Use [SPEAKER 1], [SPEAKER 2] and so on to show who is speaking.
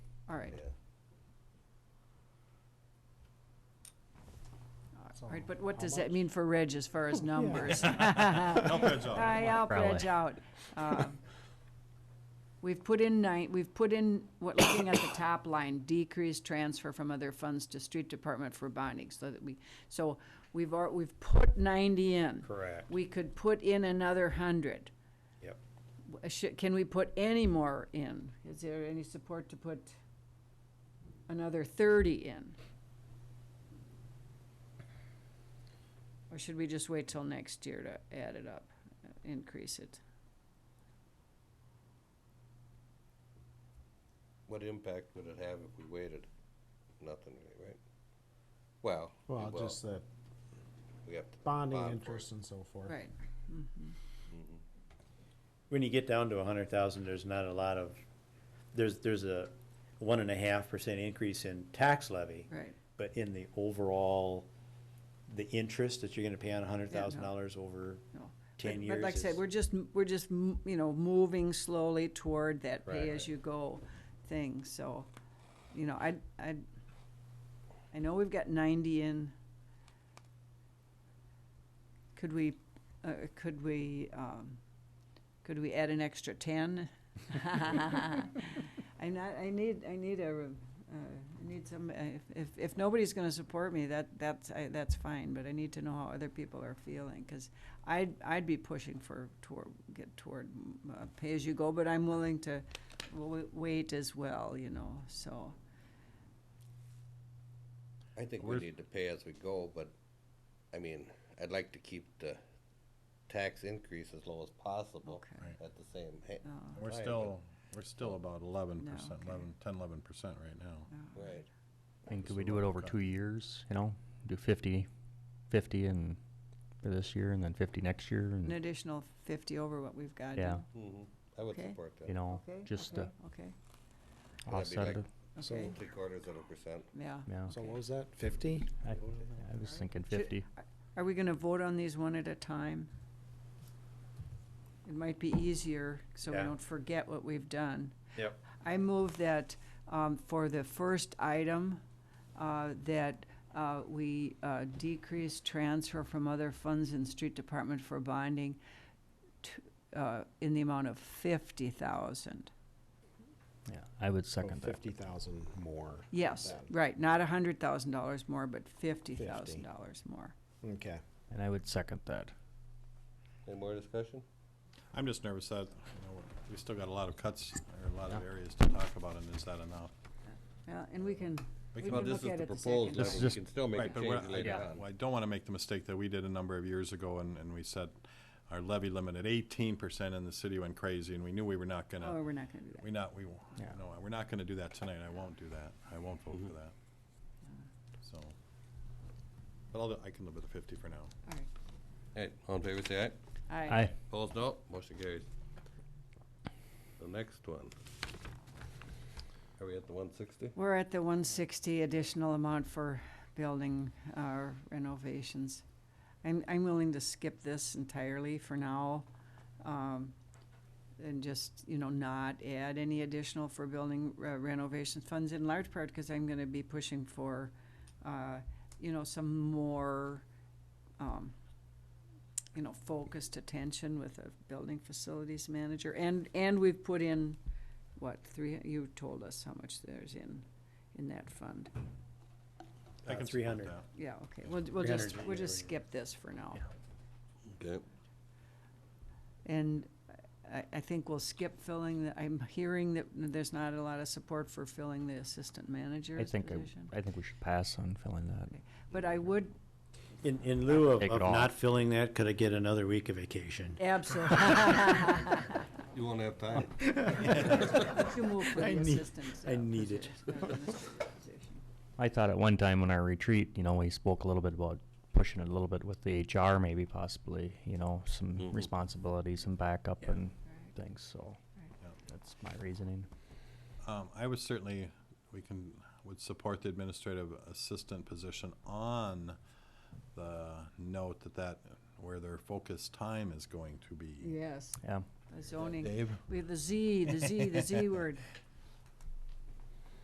[SPEAKER 1] all right. All right, but what does that mean for Reg as far as numbers?
[SPEAKER 2] Help heads up.
[SPEAKER 1] I out,
[SPEAKER 3] Probably.
[SPEAKER 1] veg out. Um, We've put in nine, we've put in, what, looking at the top line, decreased transfer from other funds to street department for bonding, so that we, so we've, al- we've put ninety in.
[SPEAKER 4] Correct.
[SPEAKER 1] We could put in another hundred.
[SPEAKER 4] Yep.
[SPEAKER 1] W- should- Can we put any more in? Is there any support to put another thirty in? Or should we just wait till next year to add it up, uh, increase it?
[SPEAKER 4] What impact would it have if we waited? Nothing, really, right? Well, we
[SPEAKER 5] Well,
[SPEAKER 4] will.
[SPEAKER 5] just the
[SPEAKER 4] we have to.
[SPEAKER 5] bonding
[SPEAKER 4] bond for it.
[SPEAKER 5] interest and so forth.
[SPEAKER 1] Right,
[SPEAKER 3] When you get down to a hundred thousand, there's not a lot of, there's, there's a one and a half percent increase in tax levy.
[SPEAKER 1] right.
[SPEAKER 3] But in the overall, the interest that you're gonna pay on a hundred
[SPEAKER 1] Yeah, no.
[SPEAKER 3] thousand dollars over
[SPEAKER 1] No.
[SPEAKER 3] ten
[SPEAKER 1] But-
[SPEAKER 3] years
[SPEAKER 1] But like I
[SPEAKER 3] is-
[SPEAKER 1] said, we're just, m- we're just, m- you know, moving slowly toward that
[SPEAKER 3] Right.
[SPEAKER 1] pay-as-you-go thing, so, you know, I, I, I know we've got ninety in. Could we, uh, could we, um, could we add an extra ten? I'm not, I need, I need a, uh, I need some, uh, if, if- if nobody's gonna support me, that, that's, I, that's fine, but I need to know how other people are feeling, cause I'd, I'd be pushing for toward, get toward, mm, uh, pay as you go, but I'm willing to w- wait as well, you know, so.
[SPEAKER 4] I think we need to pay as we go, but, I mean, I'd like to keep the tax increase as low as possible
[SPEAKER 1] Okay.
[SPEAKER 4] at the same ha- time.
[SPEAKER 1] uh,
[SPEAKER 2] We're
[SPEAKER 4] but-
[SPEAKER 2] still, we're still about eleven
[SPEAKER 1] No,
[SPEAKER 2] percent,
[SPEAKER 1] okay.
[SPEAKER 2] eleven, ten, eleven percent right
[SPEAKER 1] uh,
[SPEAKER 2] now.
[SPEAKER 4] Right,
[SPEAKER 6] I mean,
[SPEAKER 2] So
[SPEAKER 6] could we do it
[SPEAKER 2] we'll
[SPEAKER 6] over
[SPEAKER 2] cut.
[SPEAKER 6] two years, you know, do 50, 50 and for this year and then 50 next year
[SPEAKER 1] An
[SPEAKER 6] and,
[SPEAKER 1] additional fifty over what we've got.
[SPEAKER 6] yeah,
[SPEAKER 4] mhm, I would
[SPEAKER 1] Okay.
[SPEAKER 4] support that.
[SPEAKER 6] you know,
[SPEAKER 1] Okay,
[SPEAKER 6] just uh,
[SPEAKER 1] okay,
[SPEAKER 6] to
[SPEAKER 1] Okay,
[SPEAKER 4] That'd be
[SPEAKER 6] offset
[SPEAKER 4] like-
[SPEAKER 6] it,
[SPEAKER 4] So
[SPEAKER 1] okay,
[SPEAKER 4] Three quarters of a percent.
[SPEAKER 1] yeah.
[SPEAKER 6] yeah.
[SPEAKER 5] So what was that, fifty?
[SPEAKER 6] I, I was thinking
[SPEAKER 1] Should-
[SPEAKER 6] 50.
[SPEAKER 1] Are we gonna vote on these one at a time? It might be easier, so we
[SPEAKER 3] Yeah.
[SPEAKER 1] don't forget what we've done.
[SPEAKER 3] Yep.
[SPEAKER 1] I move that, um, for the first item, uh, that, uh, we, uh, decrease transfer from other funds in street department for bonding to, uh, in the amount of fifty thousand.
[SPEAKER 6] Yeah, I would second that.
[SPEAKER 5] Fifty thousand more.
[SPEAKER 1] Yes,
[SPEAKER 5] Then.
[SPEAKER 1] right, not a hundred thousand dollars more, but fifty thousand
[SPEAKER 5] 50.
[SPEAKER 1] dollars more.
[SPEAKER 5] Okay.
[SPEAKER 6] And I would second that.
[SPEAKER 4] Any more discussion?
[SPEAKER 2] I'm just nervous that, you know, we still got a lot of cuts, or a lot of areas to talk about, and is that enough?
[SPEAKER 1] Yeah, and we can,
[SPEAKER 2] We
[SPEAKER 1] we
[SPEAKER 2] can-
[SPEAKER 1] can
[SPEAKER 4] Well,
[SPEAKER 1] look
[SPEAKER 4] this
[SPEAKER 1] at
[SPEAKER 4] is the
[SPEAKER 1] it the
[SPEAKER 4] proposed
[SPEAKER 1] second.
[SPEAKER 6] This
[SPEAKER 4] level,
[SPEAKER 6] is
[SPEAKER 4] we
[SPEAKER 6] just-
[SPEAKER 4] can still make
[SPEAKER 2] Right,
[SPEAKER 4] a
[SPEAKER 2] but what
[SPEAKER 4] change
[SPEAKER 2] I-
[SPEAKER 4] later
[SPEAKER 6] yeah.
[SPEAKER 2] Well,
[SPEAKER 4] on.
[SPEAKER 2] I don't wanna make the mistake that we did a number of years ago, and, and we set our levy limit at eighteen percent, and the city went crazy, and we knew we were not
[SPEAKER 1] Oh,
[SPEAKER 2] gonna,
[SPEAKER 1] we're not gonna do that.
[SPEAKER 2] we not, we, w-
[SPEAKER 6] Yeah.
[SPEAKER 2] no, we're not gonna do that tonight, I won't do that, I won't vote
[SPEAKER 4] Mm-hmm.
[SPEAKER 2] for that. So, but I'll, I can live with the fifty for now.
[SPEAKER 1] All
[SPEAKER 4] Alright, all in favor, say aye.
[SPEAKER 1] right.
[SPEAKER 6] I
[SPEAKER 4] Opposed, no. Motion carries. The next one. Are we at the one sixty?
[SPEAKER 1] We're at the one sixty additional amount for building uh, renovations. I'm, I'm willing to skip this entirely for now. um, And just, you know, not add any additional for building uh, renovation funds in large part because I'm gonna be pushing for, uh, you know, some more, um, you know, focused attention with a building facilities manager. And, and we've put in what, three, you told us how much there's in, in that fund.
[SPEAKER 2] I
[SPEAKER 3] Uh,
[SPEAKER 2] can support
[SPEAKER 3] 300.
[SPEAKER 2] that.
[SPEAKER 1] Yeah, okay, we'll, we'll just,
[SPEAKER 3] 300
[SPEAKER 1] we'll just
[SPEAKER 3] year-over-year.
[SPEAKER 1] skip this for now.
[SPEAKER 4] Okay.
[SPEAKER 1] And I, I think we'll skip filling, the I'm hearing that there's not a lot of support for filling the assistant
[SPEAKER 6] I
[SPEAKER 1] manager's
[SPEAKER 6] think I,
[SPEAKER 1] position.
[SPEAKER 6] I think we should pass on filling that.
[SPEAKER 1] But I would
[SPEAKER 3] In, in lieu of,
[SPEAKER 6] Take it
[SPEAKER 3] of
[SPEAKER 6] off.
[SPEAKER 3] not filling that, could I get another week of vacation?
[SPEAKER 1] absolutely,
[SPEAKER 4] You won't have time.
[SPEAKER 1] to move for the
[SPEAKER 3] I need-
[SPEAKER 1] assistant.
[SPEAKER 3] I
[SPEAKER 1] uh,
[SPEAKER 3] need it.
[SPEAKER 1] position, uh, administrative position.
[SPEAKER 6] I thought at one time when our retreat, you know, we spoke a little bit about pushing it a little bit with the HR maybe possibly, you know, some
[SPEAKER 4] Mhm.
[SPEAKER 6] responsibilities and backup
[SPEAKER 3] Yeah.
[SPEAKER 6] and
[SPEAKER 1] Right.
[SPEAKER 6] things, so
[SPEAKER 2] Yeah.
[SPEAKER 6] that's my reasoning.
[SPEAKER 2] Um, I would certainly, we can, would support the administrative assistant position on the note that that, where their focus time is going to be.
[SPEAKER 1] Yes,
[SPEAKER 6] Yeah.
[SPEAKER 1] the zoning,
[SPEAKER 2] Dave?
[SPEAKER 1] we have the Z, the Z, the Z word.